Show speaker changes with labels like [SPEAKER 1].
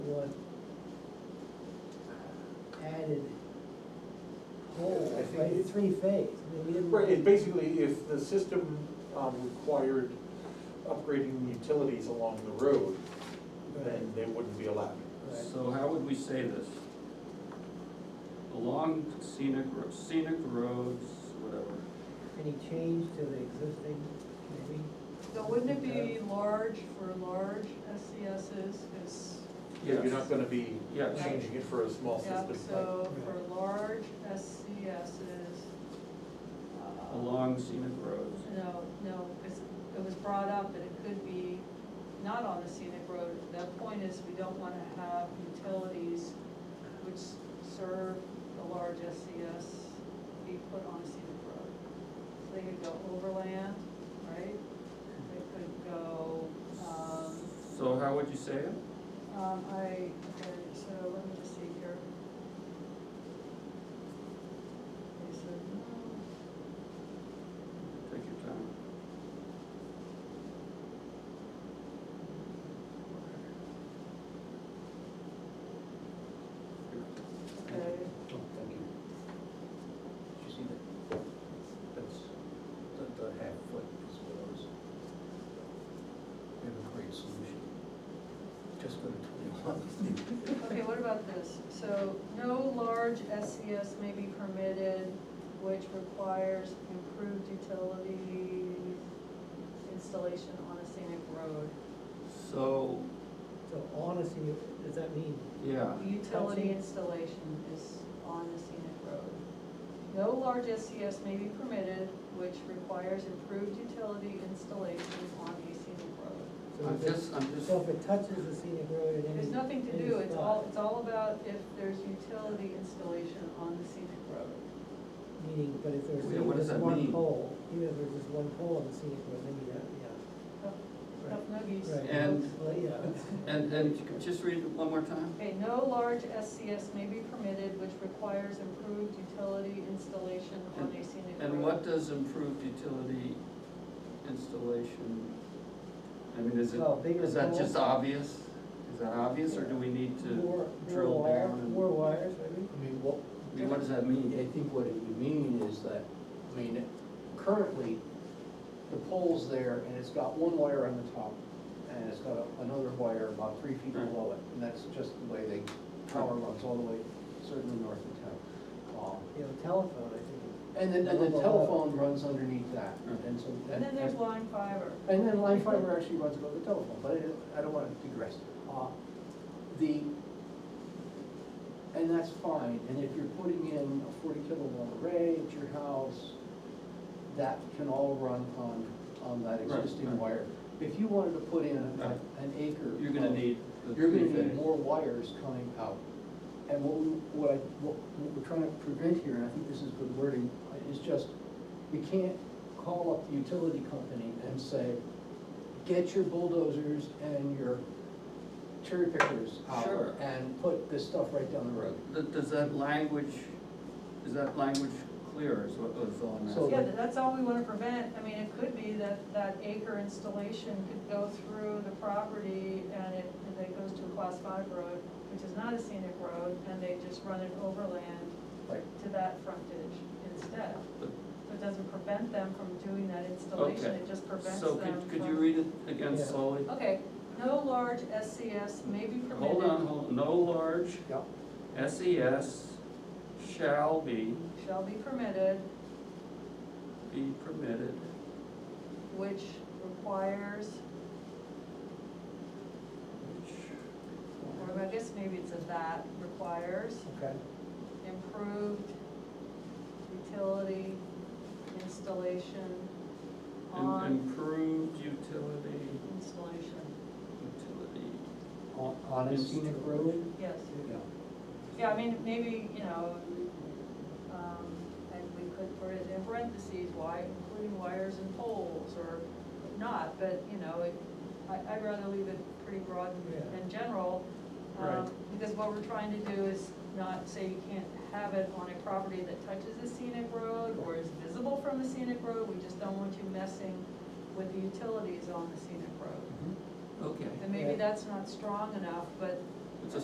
[SPEAKER 1] what added whole,
[SPEAKER 2] I think
[SPEAKER 1] like
[SPEAKER 2] it-
[SPEAKER 1] three phase, I mean, we didn't.
[SPEAKER 2] Right, and basically, if the system um, required upgrading utilities along the road,
[SPEAKER 1] Right,
[SPEAKER 2] then they wouldn't be allowed.
[SPEAKER 1] right.
[SPEAKER 3] So how would we say this? Along scenic, ro- scenic roads, whatever,
[SPEAKER 1] Any change to the existing, maybe?
[SPEAKER 4] So wouldn't it be large for large SCSs, because,
[SPEAKER 2] You're
[SPEAKER 3] Yes.
[SPEAKER 2] not gonna be
[SPEAKER 3] Yes.
[SPEAKER 2] changing it for a small
[SPEAKER 4] yeah,
[SPEAKER 2] system.
[SPEAKER 4] so for large SCSs. uh,
[SPEAKER 3] along scenic roads.
[SPEAKER 4] No, no, because it was brought up that it could be not on the scenic road. The point is, we don't want to have utilities which serve the large SCS be put on a scenic road. So they could go overland, right? They could go, um,
[SPEAKER 3] So how would you say it?
[SPEAKER 4] um, I, okay, so let me just see here. Okay, so, no.
[SPEAKER 3] Take your time.
[SPEAKER 4] Okay,
[SPEAKER 2] Oh, thank you.
[SPEAKER 5] Did you see that? That's, that the half foot is what I was. We have a great solution. Just go to twenty-one.
[SPEAKER 4] okay, what about this? So, no large SES may be permitted, which requires improved utilities installation on a scenic road.
[SPEAKER 3] So,
[SPEAKER 1] So honesty, does that mean,
[SPEAKER 3] yeah,
[SPEAKER 4] Utility installation is on the scenic road. No large SES may be permitted, which requires improved utility installation on a scenic road.
[SPEAKER 1] so
[SPEAKER 3] I'm
[SPEAKER 1] if it-
[SPEAKER 3] just, I'm just,
[SPEAKER 1] so if it touches the scenic road at any.
[SPEAKER 4] There's nothing to
[SPEAKER 1] any
[SPEAKER 4] do, it's
[SPEAKER 1] spot,
[SPEAKER 4] all, it's all about if there's utility installation on the scenic road.
[SPEAKER 1] Meaning, but if there's
[SPEAKER 3] Yeah,
[SPEAKER 1] even
[SPEAKER 3] what does
[SPEAKER 1] just
[SPEAKER 3] that
[SPEAKER 1] one
[SPEAKER 3] mean?
[SPEAKER 1] pole, even if there's just one pole on the scenic road, maybe that, yeah.
[SPEAKER 4] Oh, Tough nuggies.
[SPEAKER 1] Right,
[SPEAKER 3] And-
[SPEAKER 1] well, yeah.
[SPEAKER 3] and, and just read it one more time?
[SPEAKER 4] Okay, no large SCS may be permitted which requires improved utility installation on a scenic road.
[SPEAKER 3] And what does improved utility installation, I mean, is it,
[SPEAKER 1] Well, bigger
[SPEAKER 3] is that just
[SPEAKER 1] poles.
[SPEAKER 3] obvious? Is that obvious, or do we need to
[SPEAKER 1] More-
[SPEAKER 3] drill
[SPEAKER 1] more wire-
[SPEAKER 3] down? and-
[SPEAKER 1] More wires, maybe?
[SPEAKER 5] I mean, what,
[SPEAKER 3] I mean, what does that mean?
[SPEAKER 5] I think what it would mean is that, I mean, currently, the pole's there and it's got one wire on the top and it's got a- another wire about three feet
[SPEAKER 3] Right.
[SPEAKER 5] below it, and that's just the way they, power runs all the way, certainly north of town. Um,
[SPEAKER 1] You know, telephone, I think.
[SPEAKER 5] And then, and the telephone runs underneath that, and so.
[SPEAKER 4] And then there's line fiber.
[SPEAKER 5] And then line fiber actually runs above the telephone, but I, I don't wanna digress. Uh, The, and that's fine, and if you're putting in a forty kilowatt array at your house, that can all run on, on that
[SPEAKER 3] Right,
[SPEAKER 5] existing
[SPEAKER 3] right.
[SPEAKER 5] wire. If you wanted to put in a-
[SPEAKER 3] Right.
[SPEAKER 5] an acre.
[SPEAKER 3] You're gonna
[SPEAKER 5] of-
[SPEAKER 3] need the
[SPEAKER 5] You're gonna
[SPEAKER 3] three-phase.
[SPEAKER 5] need more wires coming out. And what we, what I, what what we're trying to prevent here, and I think this is good wording, is just, we can't call up the utility company and say, get your bulldozers and your cherry pickers
[SPEAKER 3] Sure.
[SPEAKER 5] out and put this stuff right down the road.
[SPEAKER 3] Th- Does that language, is that language clear, is what was all I'm
[SPEAKER 5] So-
[SPEAKER 3] asking?
[SPEAKER 4] Yeah, but that's all we wanna prevent, I mean, it could be that, that acre installation could go through the property and it, and it goes to a class five road, which is not a scenic road, and they just run it overland
[SPEAKER 5] Like,
[SPEAKER 4] to that frontage instead.
[SPEAKER 3] But-
[SPEAKER 4] So it doesn't prevent them from doing that installation,
[SPEAKER 3] Okay.
[SPEAKER 4] it just prevents them
[SPEAKER 3] So
[SPEAKER 4] from.
[SPEAKER 3] could, could you read it again
[SPEAKER 1] Yeah.
[SPEAKER 3] slowly?
[SPEAKER 4] Okay, no large SCS may be permitted.
[SPEAKER 3] Hold on, hold, no large
[SPEAKER 5] yeah,
[SPEAKER 3] SES shall be,
[SPEAKER 4] Shall be permitted,
[SPEAKER 3] be permitted,
[SPEAKER 4] which requires,
[SPEAKER 3] which.
[SPEAKER 4] or I guess maybe it's a that requires
[SPEAKER 5] okay.
[SPEAKER 4] improved utility installation
[SPEAKER 3] im-
[SPEAKER 4] on
[SPEAKER 3] Improved utility,
[SPEAKER 4] installation,
[SPEAKER 3] utility.
[SPEAKER 5] On, on a scenic road?
[SPEAKER 4] yes.
[SPEAKER 5] Yeah.
[SPEAKER 4] Yeah, I mean, maybe, you know, um, and we could put it in parentheses, why, including wires and poles, or not, but, you know, it, I, I'd rather leave it pretty broad and-
[SPEAKER 1] Yeah.
[SPEAKER 4] and general. um,
[SPEAKER 3] Right.
[SPEAKER 4] Because what we're trying to do is not say you can't have it on a property that touches a scenic road, or is visible from a scenic road, we just don't want you messing with the utilities on the scenic road.
[SPEAKER 3] Okay.
[SPEAKER 4] And maybe
[SPEAKER 1] Right.
[SPEAKER 4] that's not strong enough, but